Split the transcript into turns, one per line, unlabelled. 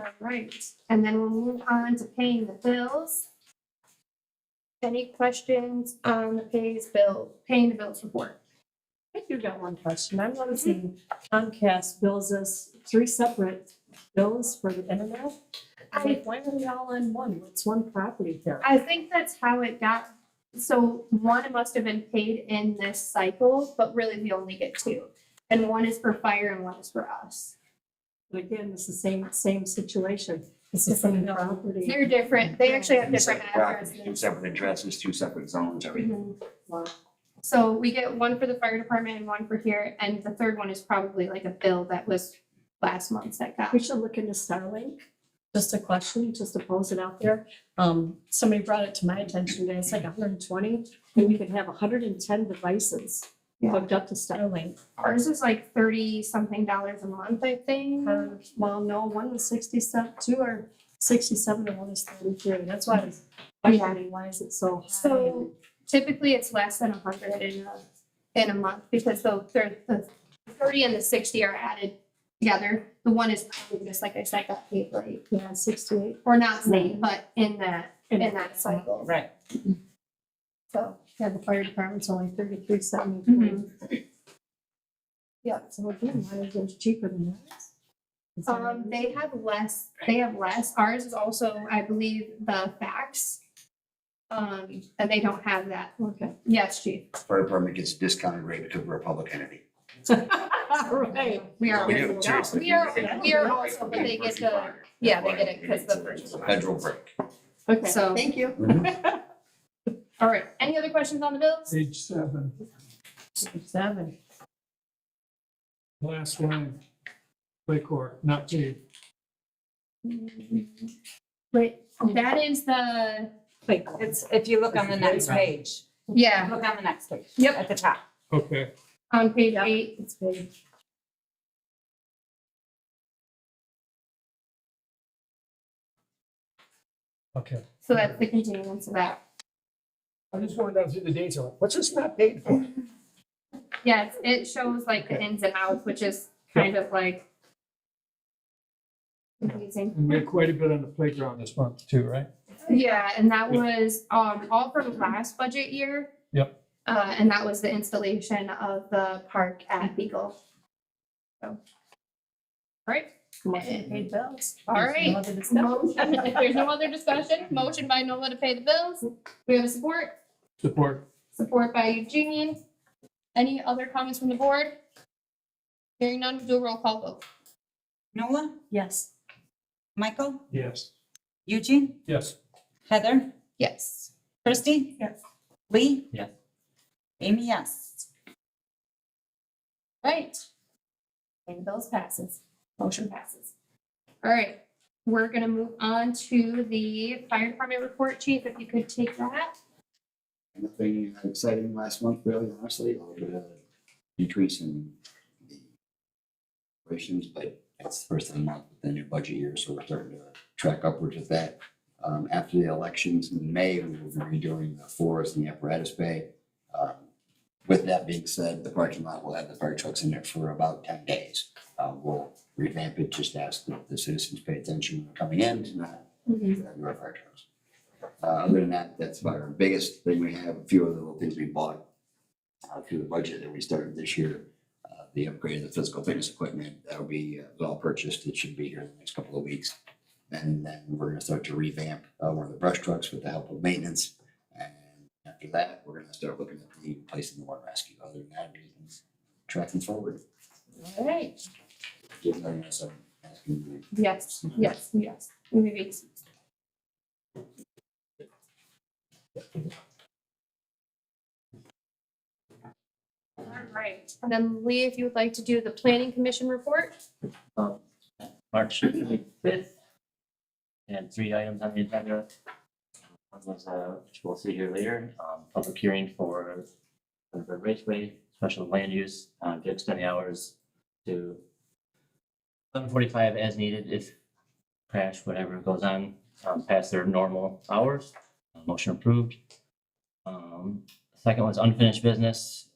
Alright, and then we'll move on to paying the bills. Any questions on the pays bill, paying the bills report?
I do got one question. I'm noticing Comcast bills us three separate bills for the internet. I'm
I,
like, why are they all on one? What's one property there?
I think that's how it got, so one must have been paid in this cycle, but really we only get two. And one is for fire and one is for us.
But again, it's the same, same situation. It's the same property.
They're different, they actually have
Two
different
separate properties, two
addresses.
separate addresses, two separate zones, everything.
Mhm. So we get one for the fire department and one for here, and the third one is probably like a bill that was last month's that got
We should look into Starlink. Just a question, just to pose it out there. Um, somebody brought it to my attention today. It's like hundred and twenty, and we could have hundred and ten devices hooked up to Starlink.
Ours is like thirty something dollars a month, I think.
Um, Well, no, one was sixty-seven, two are sixty-seven and one is thirty-three. That's why I was wondering, why is it so high?
So typically it's less than a hundred in a, in a month because the third, the thirty and the sixty are added together. The one is probably just like I said, got paid late,
Yeah, sixty-eight.
or not late, but in that, in that cycle.
Right.
So, Mm-hmm.
Yeah, the fire department's only thirty-three seventy-three. Yeah, so again, why is it cheaper than ours? Is that
um,
right?
they have less, they have less. Ours is also, I believe, the fax. Um, and they don't have that.
Okay.
Yes, chief,
Fire department gets discounted rate because we're a public entity.
Right.
we are.
We do, seriously.
We are- we are also, but they get the- yeah, they get it 'cause the-
It's a Federal break. Mm-hmm.
Okay.
So-
Thank you.
All right, any other questions on the bills?
Page seven,
Seven.
last line, Lake Court, not paid.
Wait, that is the,
Wait,
It's, if you look on the next page,
yeah,
look on the next page.
Yep.
At the top.
Okay,
on page
Yeah.
eight.
it's big.
okay.
So that's the continuance of that.
I'm just going down through the dates, I'm like, what's this not paid for?
Yes, it shows like the ins and outs, which is kind of like confusing.
We made quite a bit on the playground this month too, right?
Yeah, and that was, um, all from last budget year.
Yep.
Uh, and that was the installation of the park at Beagle. So. All right,
Motion to pay bills.
All right.
No other discussion?
motion, if there's no other discussion, motion by Nola to pay the bills. We have a support?
Support.
Support by Eugene. Any other comments from the board? Hearing none, we'll do a roll call vote.
Nola,
Yes.
Michael,
Yes.
Eugene,
Yes.
Heather,
Yes.
Christie?
Yes.
Lee?
Yes.
Amy, yes.
Right. And bills passes. Motion passes. All right, we're gonna move on to the fire department report. Chief, if you could take that.
Nothing exciting last month, really, honestly, a little bit of decrease in the operations, but it's the first time out with the new budget year, so we're starting to track upwards with that. Um, after the elections in May, we will be redoing the forest and the apparatus bay. Um, With that being said, the parking lot will have the fire trucks in there for about ten days. Uh, we'll revamp it, just ask that the citizens pay attention when they're coming in, to not
Mm-hmm.
drive our fire trucks. Uh, other than that, that's about our biggest thing. We have a few other little things we bought uh, through the budget that we started this year. Uh, the upgrade of the physical fitness equipment, that'll be uh, all purchased. It should be here in the next couple of weeks. And then we're gonna start to revamp uh, one of the brush trucks with the help of maintenance. And after that, we're gonna start looking at the placing the one rescue. Other than that, everything's tracking forward.
All right.
Just letting us, uh, asking
Yes, yes, yes. Moving. All right, and then Lee, if you would like to do the planning commission report?
March fifth. And three items on the agenda. One was, uh, which we'll see here later, um, public hearing for the Raceway special land use, uh, to extend the hours to eleven forty-five as needed if crash, whatever goes on, um, past their normal hours. Uh, Motion approved. Um, second was unfinished business,